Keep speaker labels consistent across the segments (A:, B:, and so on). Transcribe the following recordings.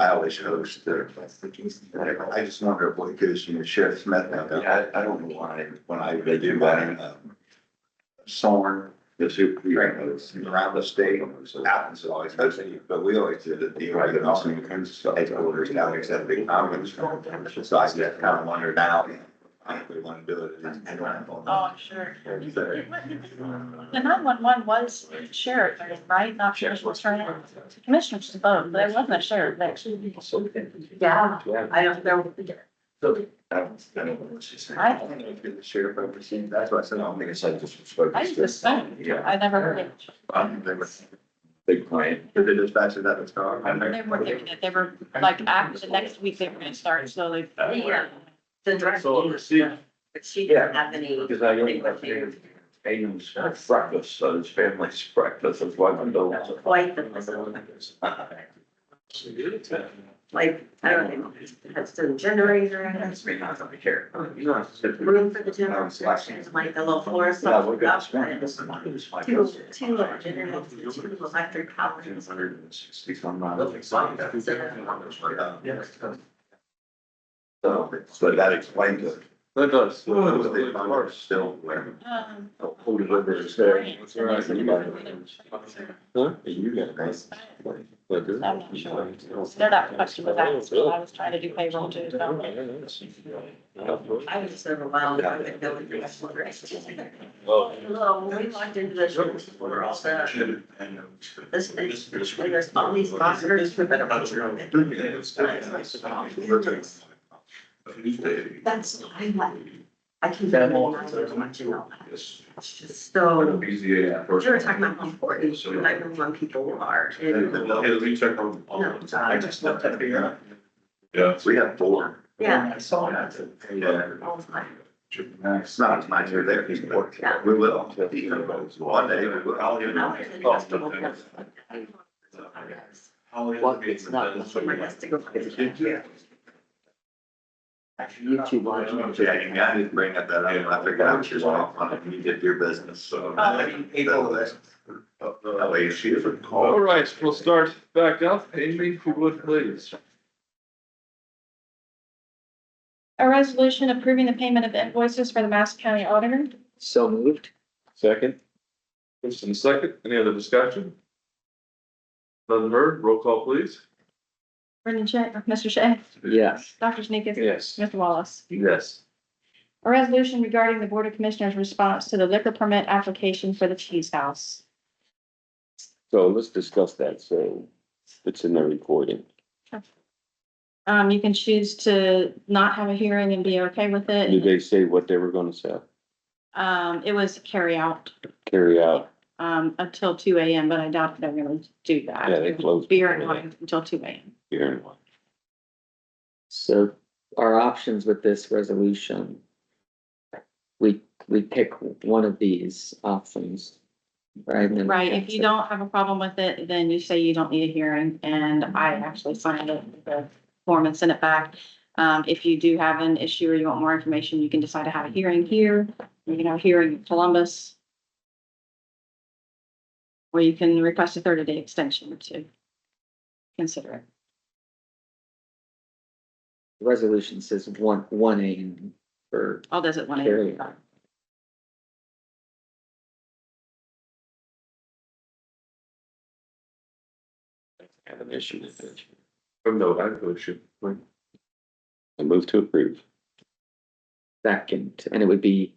A: probably shows that. I just wonder what gives you Sheriff Smith now.
B: Yeah,
A: I, I don't know why, when I, they do mine, um, Soren, the super, you know, it's around the state, so happens always, I say, but we always did it, the, right, and also in terms of headquarters, now we said big comments. So I just kind of wonder now, I think we want to do it.
C: Oh,
A: it's-
C: I'm sure.
A: So,
C: The nine-one-one was sheriff, right? Not sheriff was trying, commissioners to vote, but there wasn't a sheriff there.
D: Yeah,
B: Yeah.
D: I don't, there,
A: I don't I don't know what she's saying.
C: I-
A: I don't know if you're the sheriff overseas, that's why I said, I don't think it's like just spoke.
C: I just assumed, I never heard it.
A: Um, they were,
B: Big client.
A: did the dispatcher that was gone?
C: They were, doing it. they were like after the next week, they were gonna start slowly.
D: Yeah. the director,
B: So, see,
D: but she didn't have any,
B: because I don't have any Aiden's breakfast, so his family's breakfast, that's why I'm doing.
D: quite the, like, I don't know, has the generator in it. Room for the general instructions, like the little floor.
B: Yeah, we're good.
D: Two, two little generators, two electric powers.
B: So,
A: So that explains it.
B: that does.
A: It was the farmer's still wearing.
C: Um,
B: Hold it over his head.
C: grants,
B: all
C: and they
B: right,
C: said
B: you
C: it
B: got
C: was really-
B: Huh? You got a nice.
C: I'm not sure. They're not fussed with that, so I was trying to do payroll too. so.
D: I was just overwhelmed. I would go with the rest of the rest.
B: Well.
D: Hello, when we logged into the room, we were all set. This, this, there's all these boxers. with better room. That's what I like. I can.
B: That
D: not
B: whole-
D: Watching all that. It's just so, you were talking about how important nine one one people are and,
A: I just left that beer. We have four.
D: yeah,
A: I saw that. Yeah.
D: all the time.
A: It's not as nice as there, he's working. We will. One day, we will. I'll
D: I was in the festival. Somebody
B: it's not.
A: Oh,
D: has to go.
A: Yeah,
B: YouTube watching.
A: you got to bring up that, up. I figured out she's off on it, you did your business, so. uh, That way she doesn't
B: All
A: call.
B: right, we'll start back up. Amy, if you would please.
C: A resolution approving the payment of invoices for the Madison County Auditor.
E: So moved.
B: Second. First and second, any other discussion? None heard, roll call please.
C: Brendan Shea, Mr. Shea,
E: Yes.
C: Dr. Sneakus,
B: Yes.
C: Mr. Wallace.
B: Yes.
C: A resolution regarding the Board of Commissioners' response to the liquor permit application for the Cheese House.
E: So let's discuss that. So it's in the recording.
C: Um, you can choose to not have a hearing and be okay with
E: Did
C: it.
E: they say what they were gonna sell?
C: Um, it was carry out
E: Carry out?
C: um, until two AM, but I doubt they're gonna do that.
E: Yeah, they closed
C: Beer and
E: before that.
C: wine until two AM.
E: Here and one.
F: So our options with this resolution. We, we pick one of these options, right? And then-
C: Right, if you don't have a problem with it, then you say you don't need a hearing, and I actually signed it, the form and sent it back. Um, if you do have an issue or you want more information, you can decide to have a hearing here, you can have a hearing in Columbus. Or you can request a thirty-day extension to consider it.
F: The Resolution says one, one A for
C: All does it one
F: carry.
C: AM.
E: Have an issue with it.
B: Oh, no, I have no issue.
E: I move to approve.
F: Second, and it would be.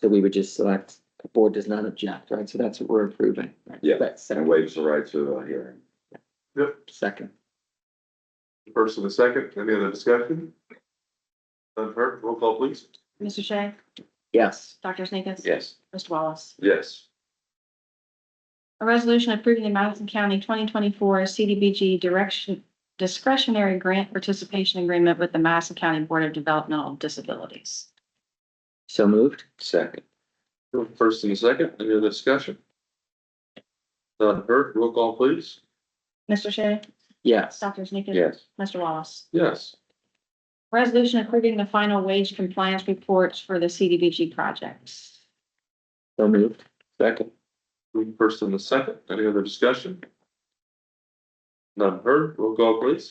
F: So we would just select, the board does not object, right? So that's what we're approving. right?
E: Yeah,
F: That's
E: And
F: second,
E: waives the right to uh, a hearing.
F: second.
B: First and a second, any other discussion? None heard, roll call please.
C: Mr. Shea,
F: Yes,
C: Dr. Sneakus?
E: Yes.
C: Mr. Wallace?
B: Yes.
C: A resolution approving the Madison County twenty twenty-four CDBG direction discretionary grant participation agreement with the Madison County Board of Developmental Disabilities.
F: so moved.
E: Second.
B: First and a second, any other discussion? None heard, roll call please.
C: Mr. Shea?
F: Yes,
C: Dr. Sneakus?
E: Yes.
C: Mr. Wallace?
B: Yes.
C: Resolution approving the final wage compliance reports for the CDBG projects.
F: so moved.
E: Second.
B: First and a second, any other discussion? None heard, roll call please.